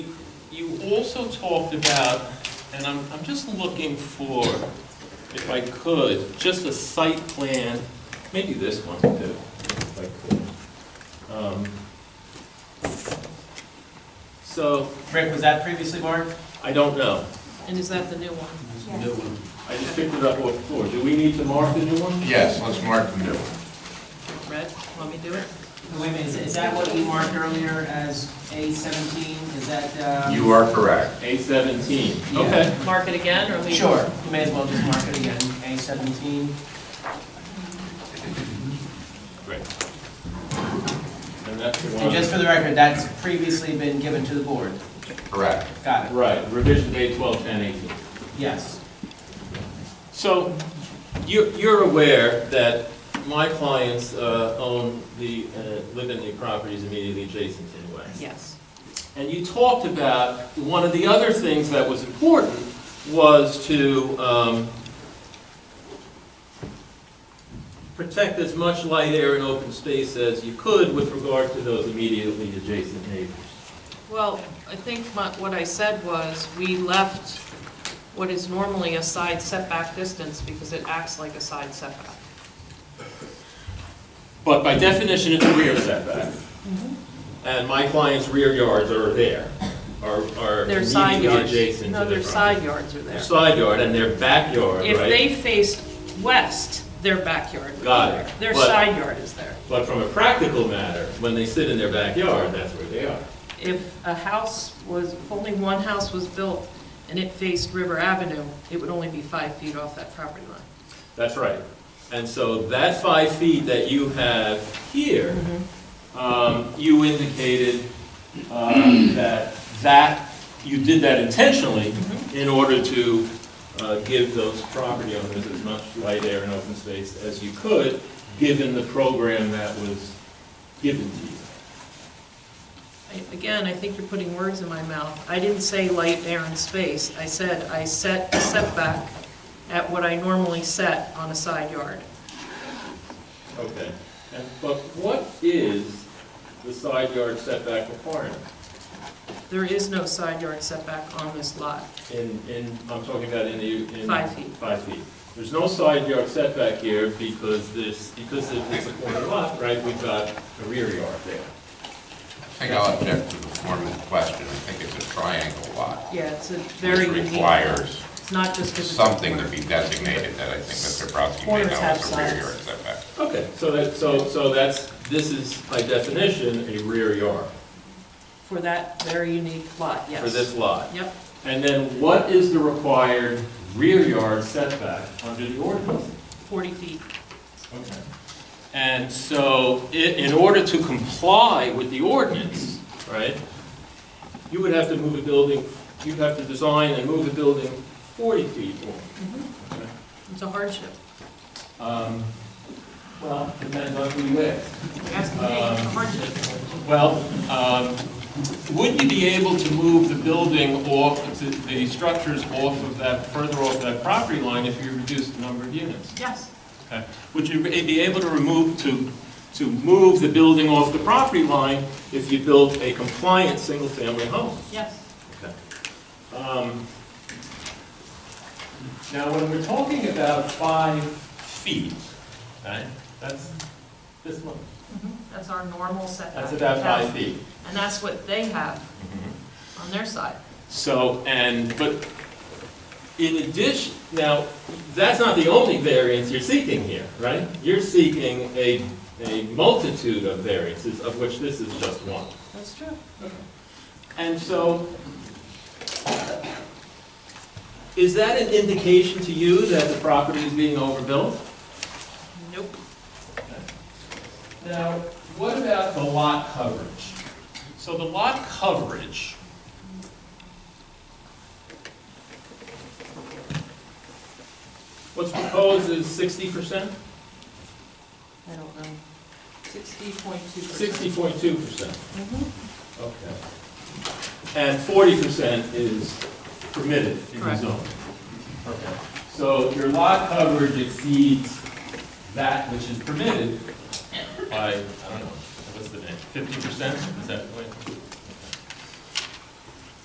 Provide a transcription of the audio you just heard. you also talked about, and I'm, I'm just looking for, if I could, just a site plan, maybe this one too, if I could. Um, So, Rick, was that previously marked? I don't know. And is that the new one? Yes. I just picked it up off the floor. Do we need to mark the new one? Yes, let's mark the new one. Red, want me to do it? Wait a minute, is- is that what you marked earlier as A seventeen? Is that, uh? You are correct. A seventeen, Yeah. okay. Mark it again, or leave? Sure, you may as well just mark it again, A seventeen. Great. And that's the one. And just for the record, that's previously been given to the board. Correct. Got it, Right, revision day twelve, ten, eighteen. yes. So, you're, you're aware that my clients uh, own the, uh, live in the properties immediately adjacent to the West. Yes. And you talked about, one of the other things that was important was to um, protect as much light, air, and open space as you could with regard to those immediately adjacent neighbors. Well, I think my- what I said was, we left what is normally a side setback distance because it acts like a side setback. But by definition, it's a rear setback. Mm-hmm. And my client's rear yards are there, are are Their side immediately yards. adjacent to No, the their property. side yards are there. Side yard and their backyard, If right? they faced west, their backyard would be Got there. it. Their But- side yard is there. But from a practical matter, when they sit in their backyard, that's where they are. If a house was, if only one house was built and it faced River Avenue, it would only be five feet off that property line. That's right. And so that five feet that you have here, um, you indicated um, that that, you did that intentionally in order to uh, give those property owners as much light, air, and open space as you could, given the program that was given to you. I- Again, I think you're putting words in my mouth. I didn't say light, air, and space. I said I set a setback at what I normally set on a side yard. Okay. And- But what is the side yard setback requirement? There is no side yard setback on this lot, In, in, I'm talking about in the, in. five feet. Five feet. There's no side yard setback here because this, because if it's a corner lot, right, we've got a rear yard there. I think I'll object to the foreman's question. I think it's a triangle lot. Yeah, it's a very Which unique. requires It's not just because it's a something to corner. be designated that I think Mr. Brodsky may Corners know have is a rear yard sides. setback. Okay, so that, so, so that's, this is by definition a rear yard For that very unique lot, yes. for this lot. Yep. And then what is the required rear yard setback under the ordinance? 40 feet. Okay. And so, i- in order to comply with the ordinance, right, you would have to move a building, you'd have to design and move a building 40 feet long. It's a hardship. Um, Well, depends on who you ask. You're asking me, it's a Um, hardship. Well, um, would you be able to move the building off, the- the structures off of that, further off that property line if you reduced the number of units? Yes. Okay. Would you be able to remove, to, to move the building off the property line if you built a compliant single-family home? Yes. Um, Now, when we're talking about five feet, right, that's this one, Mm-hmm. That's our normal setback. that's about five feet. Mm-hmm. And that's what they have on their side. So, and, but in addition, now, that's not the only variance you're seeking here, right? You're seeking a, a multitude of variances, of which this is just one. That's true. And so, is that an indication to you that the property is being overbuilt? Nope. Now, what about the lot coverage? So the lot coverage. What's proposed is sixty percent? I don't know. Sixty point two Sixty point two percent. Mm-hmm. Okay. And forty percent is permitted in the Correct. zone. Okay. So your lot coverage exceeds that which is permitted by, I don't know, what's the name, fifty percent? Is that what?